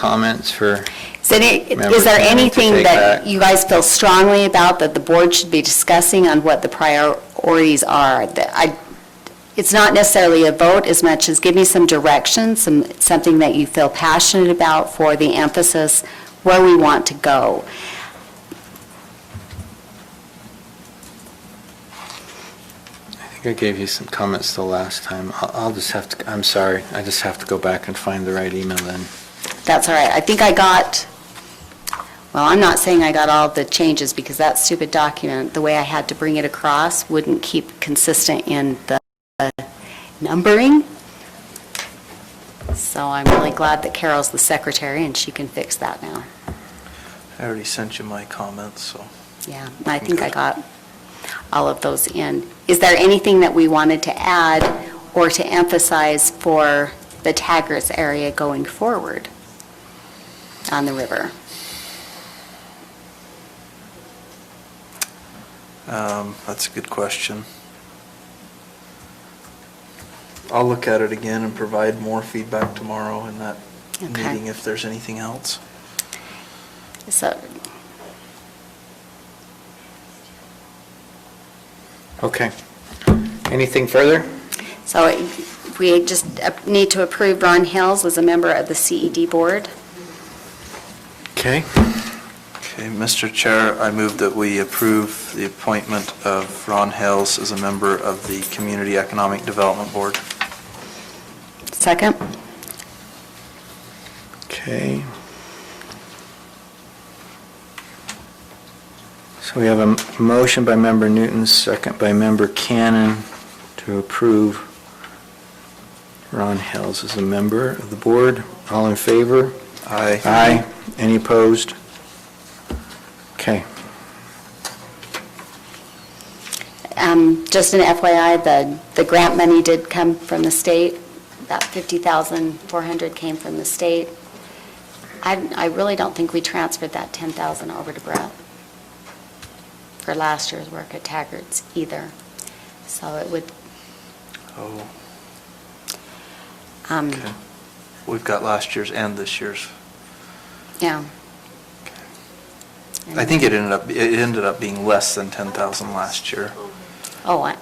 comments for, Is any- Members, is there you need to anything take that back. you guys feel strongly about that the board should be discussing on what the priorities are? That I- It's not necessarily a vote as much as give me some direction, some, something that you feel passionate about for the emphasis, where we want to go. I think I gave you some comments the last time. I'll, I'll just have to, I'm sorry, I just have to go back and find the right email then. That's all right. I think I got, well, I'm not saying I got all the changes because that stupid document, the way I had to bring it across, wouldn't keep consistent in the numbering. So I'm really glad that Carol's the secretary and she can fix that now. I already sent you my comments, so. Yeah, and I think I got all of those in. Is there anything that we wanted to add or to emphasize for the Tagris area going forward on the river? Um, That's a good question. I'll look at it again and provide more feedback tomorrow in that Okay. meeting if there's anything else. So, Okay. Anything further? so we just need to approve Ron Hales as a member of the CED board. Okay. Okay, Mr. Chair, I move that we approve the appointment of Ron Hales as a member of the Community Economic Development Board. Second? Okay. So we have a m- motion by member Newton, second by member Cannon to approve Ron Hales as a member of the board. All in favor? Aye. Aye. Any opposed? Okay. Um, Just an FYI, the, the grant money did come from the state. About 50,400 came from the state. I, I really don't think we transferred that 10,000 over to Brett for last year's work at Taggart's either. So it would, Oh, um, okay. We've got last year's and this year's. yeah. I think it ended up, it ended up being less than 10,000 last year, Oh, I,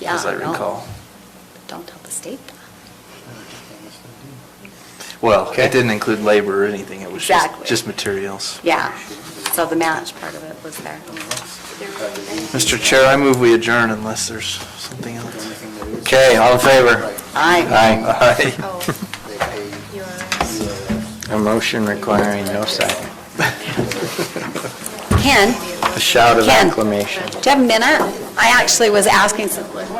yeah. as I no. recall. Don't tell the state that. Well, Okay. it didn't include labor or anything, it was just, Exactly. just materials. Yeah, so the match part of it was there. Mr. Chair, I move we adjourn unless there's something else. Okay, all in favor? Aye. Aye. A motion requiring no second. Ken, A shout of Ken. acclamation. do you have a minute? I actually was asking some.